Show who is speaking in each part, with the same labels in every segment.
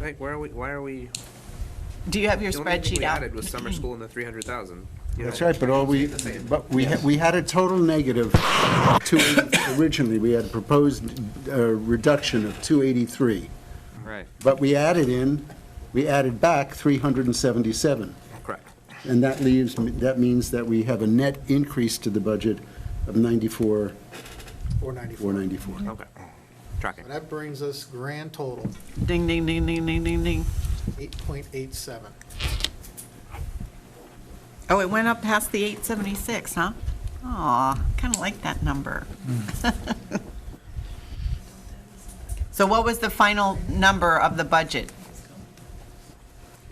Speaker 1: Like, where are we, why are we?
Speaker 2: Do you have your
Speaker 1: The only thing
Speaker 2: spreadsheet
Speaker 1: we
Speaker 2: out?
Speaker 1: added was summer school and the three hundred thousand.
Speaker 3: That's right, but all we, but we, ha- we had a total negative two, originally, we had proposed a reduction of 283.
Speaker 1: Right.
Speaker 3: But we added in, we added back 377.
Speaker 1: Correct.
Speaker 3: And that leaves, that means that we have a net increase to the budget of 94,
Speaker 4: 494.
Speaker 3: 494.
Speaker 1: Okay. Tracking.
Speaker 4: And That brings us grand total,
Speaker 2: Ding, ding, ding, ding, ding, ding, ding.
Speaker 4: 8.87.
Speaker 2: Oh, it went up past the 876, huh? Aw, kind of like that number. So what was the final number of the budget?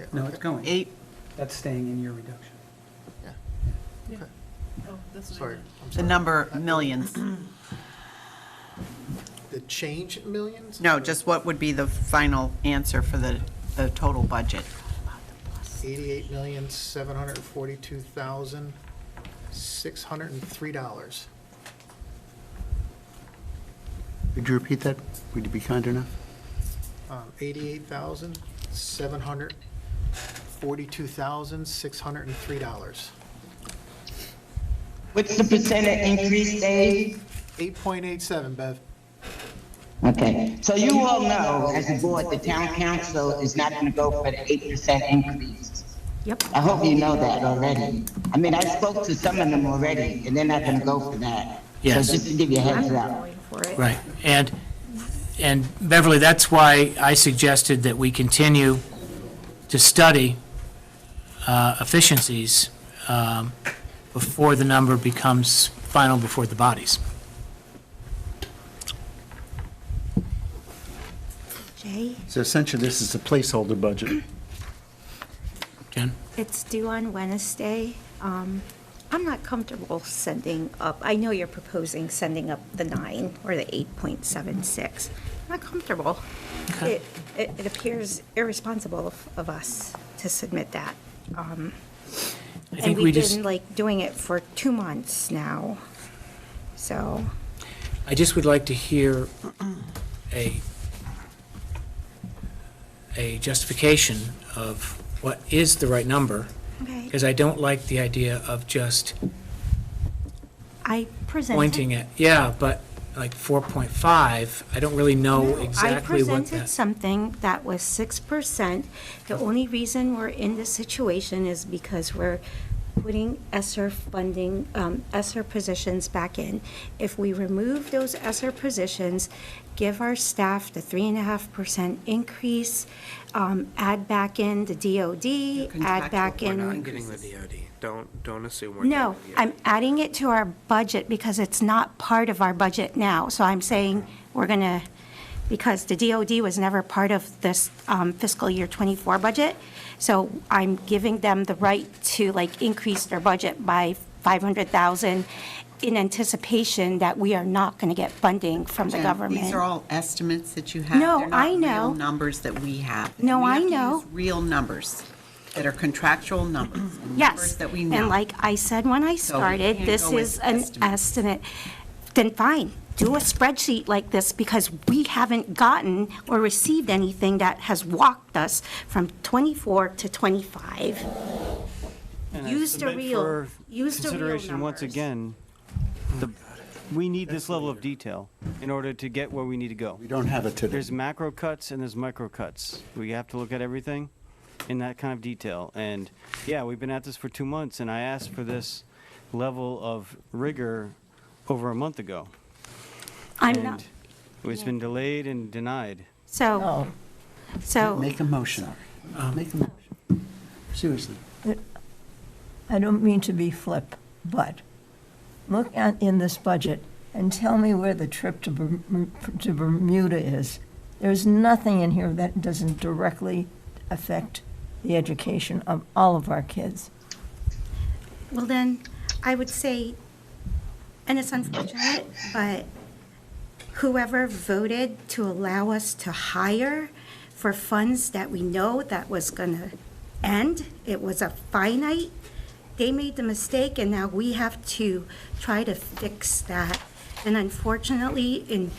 Speaker 4: Yeah,
Speaker 5: No,
Speaker 4: okay.
Speaker 5: it's going.
Speaker 2: Eight,
Speaker 5: That's staying in your reduction.
Speaker 4: Sorry, I'm
Speaker 2: the
Speaker 4: sorry.
Speaker 2: number millions?
Speaker 4: The change in millions?
Speaker 2: No, just what would be the final answer for the, the total budget?
Speaker 4: 88,742,603. dollars.
Speaker 3: Would you repeat that? Would you be kind enough?
Speaker 4: Um, 88,742,603. dollars.
Speaker 6: What's the percent of increase, Dave?
Speaker 4: 8.87, Bev.
Speaker 6: Okay, so you all know, as a board, the town council is not gonna go for the eight percent increase.
Speaker 7: Yep.
Speaker 6: I hope you know that already. I mean, I spoke to some of them already, and they're not gonna go for that. So
Speaker 8: Yes.
Speaker 6: just to give you a heads up.
Speaker 7: Going for it.
Speaker 8: Right, and, and Beverly, that's why I suggested that we continue to study uh, efficiencies um, before the number becomes final before the bodies.
Speaker 7: Jay,
Speaker 3: So essentially, this is a placeholder budget.
Speaker 8: Jen?
Speaker 7: it's due on Wednesday. Um, I'm not comfortable sending up, I know you're proposing sending up the nine or the 8.76. I'm Not comfortable. It, it it appears irresponsible of- of us to submit that. Um,
Speaker 8: I
Speaker 7: And
Speaker 8: think we
Speaker 7: we've
Speaker 8: just,
Speaker 7: been like doing it for two months now, so.
Speaker 8: I just would like to hear a, a justification of what is the right number,
Speaker 7: Okay.
Speaker 8: because I don't like the idea of just
Speaker 7: I presented.
Speaker 8: pointing at, yeah, but like 4.5, I don't really know
Speaker 7: No,
Speaker 8: exactly
Speaker 7: I
Speaker 8: what
Speaker 7: presented
Speaker 8: that,
Speaker 7: something that was six percent. The only reason we're in this situation is because we're putting ESSER funding, um, ESSER positions back in. If we remove those ESSER positions, give our staff the three and a half percent increase, um, add back in the DOD, add back
Speaker 2: contractual
Speaker 7: in.
Speaker 1: We're not getting the DOD. Don't, don't assume we're.
Speaker 7: No,
Speaker 1: getting the DoD.
Speaker 7: I'm adding it to our budget because it's not part of our budget now. So I'm saying we're going to, because the DOD was never part of this um, fiscal year '24 budget. So I'm giving them the right to like increase their budget by 500,000 in anticipation that we are not going to get funding from the
Speaker 2: Jen,
Speaker 7: government.
Speaker 9: These are all estimates that you have.
Speaker 7: No,
Speaker 9: They're not
Speaker 7: I know.
Speaker 9: real numbers that we have.
Speaker 7: No,
Speaker 9: We have
Speaker 7: I
Speaker 9: to
Speaker 7: know.
Speaker 9: use Real numbers that are contractual numbers. and
Speaker 7: Yes.
Speaker 9: Numbers that we know.
Speaker 7: And like I said when I
Speaker 9: we
Speaker 7: started,
Speaker 9: can't
Speaker 7: this
Speaker 9: go with
Speaker 7: is an
Speaker 9: estimates.
Speaker 7: estimate. Then fine, do a spreadsheet like this because we haven't gotten or received anything that has walked us from 24 to 25.
Speaker 10: And I
Speaker 7: Use the
Speaker 10: submit
Speaker 7: real,
Speaker 10: for
Speaker 7: use the real
Speaker 10: Consideration once
Speaker 7: numbers.
Speaker 10: again, the, we need this level of detail in order to get where we need to go.
Speaker 3: We don't have it today.
Speaker 10: There's macro cuts and there's micro cuts. We have to look at everything in that kind of detail. And yeah, we've been at this for two months and I asked for this level of rigor over a month ago.
Speaker 7: I'm
Speaker 10: And
Speaker 7: not,
Speaker 10: It's been delayed and denied.
Speaker 7: so, so,
Speaker 3: Make a motion. Make a motion. Seriously.
Speaker 11: I don't mean to be flip, but look at, in this budget and tell me where the trip to Berm- to Bermuda is. There's nothing in here that doesn't directly affect the education of all of our kids.
Speaker 7: well then, I would say, and it's unfortunate, but whoever voted to allow us to hire for funds that we know that was gonna end, it was a finite, they made the mistake, and now we have to try to fix that. And unfortunately, in